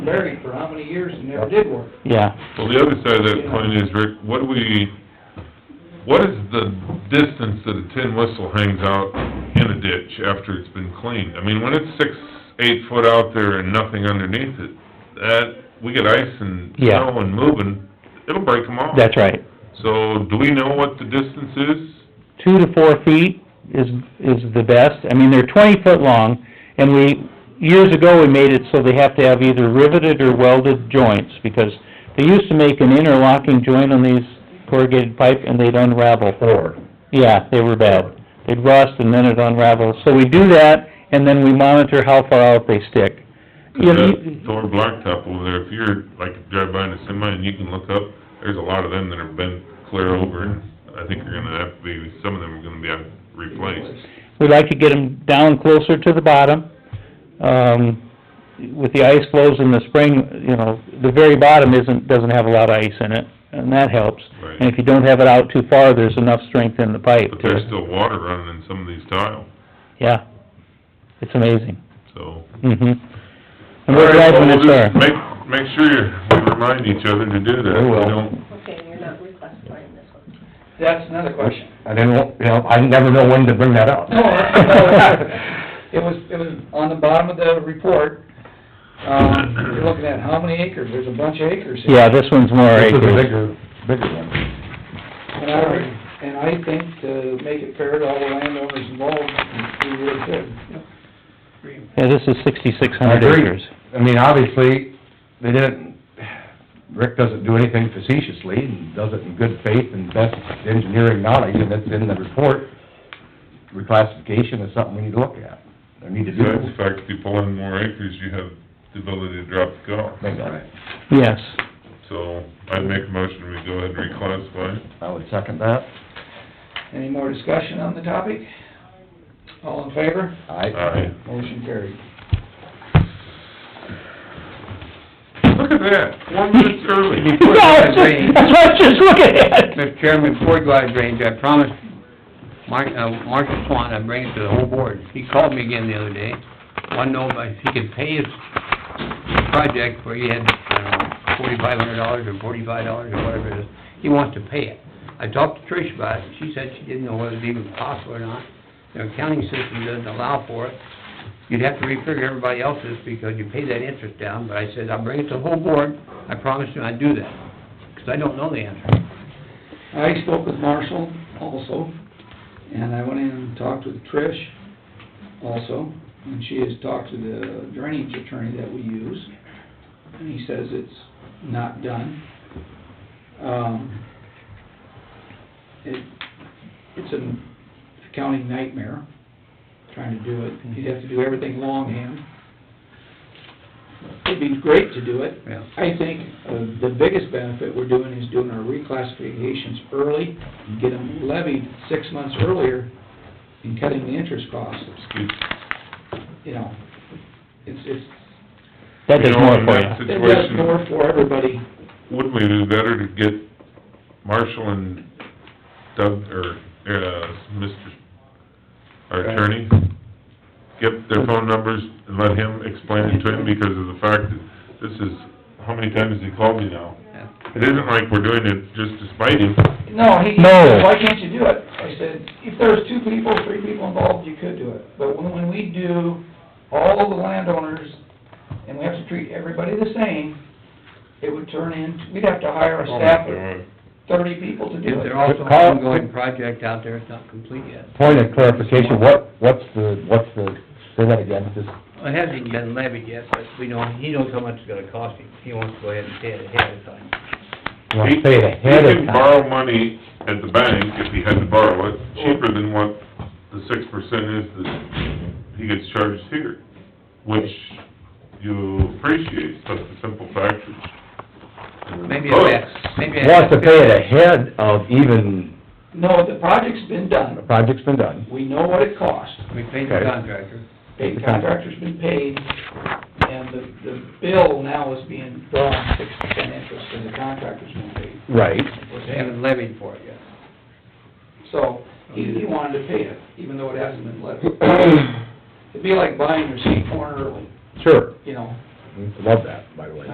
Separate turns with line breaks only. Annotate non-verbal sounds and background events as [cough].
buried for how many years and never did work.
yeah.
Well, the other side of that coin is, Rick, what do we, what is the distance that a tin whistle hangs out in a ditch after it's been cleaned? I mean, when it's six, eight foot out there and nothing underneath it, that, we get ice and
Yeah.
snow and moving, it'll break them off.
That's right.
So, do we know what the distance is?
Two to four feet is, is the best. I mean, they're twenty foot long, and we, years ago, we made it so they have to have either riveted or welded joints, because they used to make an interlocking joint on these corrugated pipe, and they'd unravel.
Or,
Yeah, they were bad. They'd rust and then it unraveled. So we do that and then we monitor how far out they stick. You
Cause
know,
that
you-
Thor blacktop over there, if you're, like, drive by in a semi and you can look up, there's a lot of them that have been clear over, and I think you're gonna have to be, some of them are gonna be out- replaced.
We like to get them down closer to the bottom. Um, with the ice flows in the spring, you know, the very bottom isn't, doesn't have a lot of ice in it and that helps.
Right.
And if you don't have it out too far, there's enough strength in the pipe
But there's
to,
still water running in some of these tile,
yeah. It's amazing.
so.
hmm And we're glad when it's there.
Alright, well, we'll just Make, make sure you- we remind each other to do that.
We will.
We don't-
Okay, and you're not reclassifying this one.
That's another question. [laughs]
I didn't, wa- you know, I never know when to bring that up.
No, it was, it was on the bottom of the report, um, you're looking at how many acres, there's a bunch of acres here.
Yeah, this one's more
This is a
acres.
bigger, bigger one.
And I, and I think to make it fair to all the landowners involved, we really could.
Yeah, this is sixty-six
I
hundred
agree.
acres.
I mean, obviously, they didn't, Rick doesn't do anything facetiously, and does it in good faith and best engineering knowledge, and it's in the report. Reclassification is something we need to look at, or need to do.
Besides the fact, if you pull in more acres, you have the ability to drop the cost.
Bingo.
Yes.
So, I'd make a motion, we go ahead and reclassify.
I would second that.
Any more discussion on the topic? All in favor?
Aye.
Motion carried.
Look at that, one minute [laughs] early.
That's what [laughs]
that drain.
I was just looking at.
Mr. Chairman, before you go out of drainage, I promised Mark, uh, Marshall Swan I'd bring it to the whole board. He called me again the other day, wanted to know if he could pay his project where he had, uh, forty-five hundred dollars or forty-five dollars or whatever it is. He wants to pay it. I talked to Trish about it, and she said she didn't know whether it was even possible or not. Their accounting system doesn't allow for it. You'd have to refigure everybody else's because you pay that interest down, but I said, I'll bring it to the whole board. I promised him I'd do that, 'cause I don't know the answer.
I spoke with Marshall also, and I went in and talked with Trish also, and she has talked to the drainage attorney that we use, and he says it's not done. Um, it, it's an accounting nightmare, trying to do it, you'd have to do everything longhand. It'd be great to do it,
Yeah.
I think uh, the biggest benefit we're doing is doing our reclassifications early, and get them levied six months earlier, and cutting the interest costs,
Excuse-
you know. It's, it's,
That does
You know,
more
in
for
that
you.
it does
situation,
more for everybody.
Wouldn't we do better to get Marshall and Doug, or, uh, Mr., our attorney, get their phone numbers and let him explain it to him, because of the fact that this is, how many times has he called me now?
Yeah.
It isn't like we're doing it just to spite him.
No, he,
No.
said, why can't you do it? I said, if there's two people, three people involved, you could do it. But when, when we do all the landowners, and we have to treat everybody the same, it would turn in, we'd have to hire a staff of thirty people to do
Is
it.
there also an
Carl-
ongoing project out there that's not complete yet?
Point of clarification, what, what's the, what's the, say that again, just,
It hasn't been levied yet, but we know, he knows how much it's gonna cost him. He wants to go ahead and pay it ahead of time.
you want to say it ahead
He
of
can
time?
borrow money at the bank, if he had to borrow it, cheaper than what the six percent is that he gets charged here, which you appreciate, but the simple fact is.
Maybe a half, maybe a half.
Oh. Wants to pay it ahead of even,
No, the project's been
the
done.
project's been done.
We know what it cost.
We paid the contractor.
The contractor's been paid, and the, the bill now is being drawn six percent interest, and the contractor's been paid.
Right.
They haven't levied for it yet.
So, he, he wanted to pay it, even though it hasn't been levied. It'd be like buying your seed corn early,
Sure.
you know,
We Love that, by the way.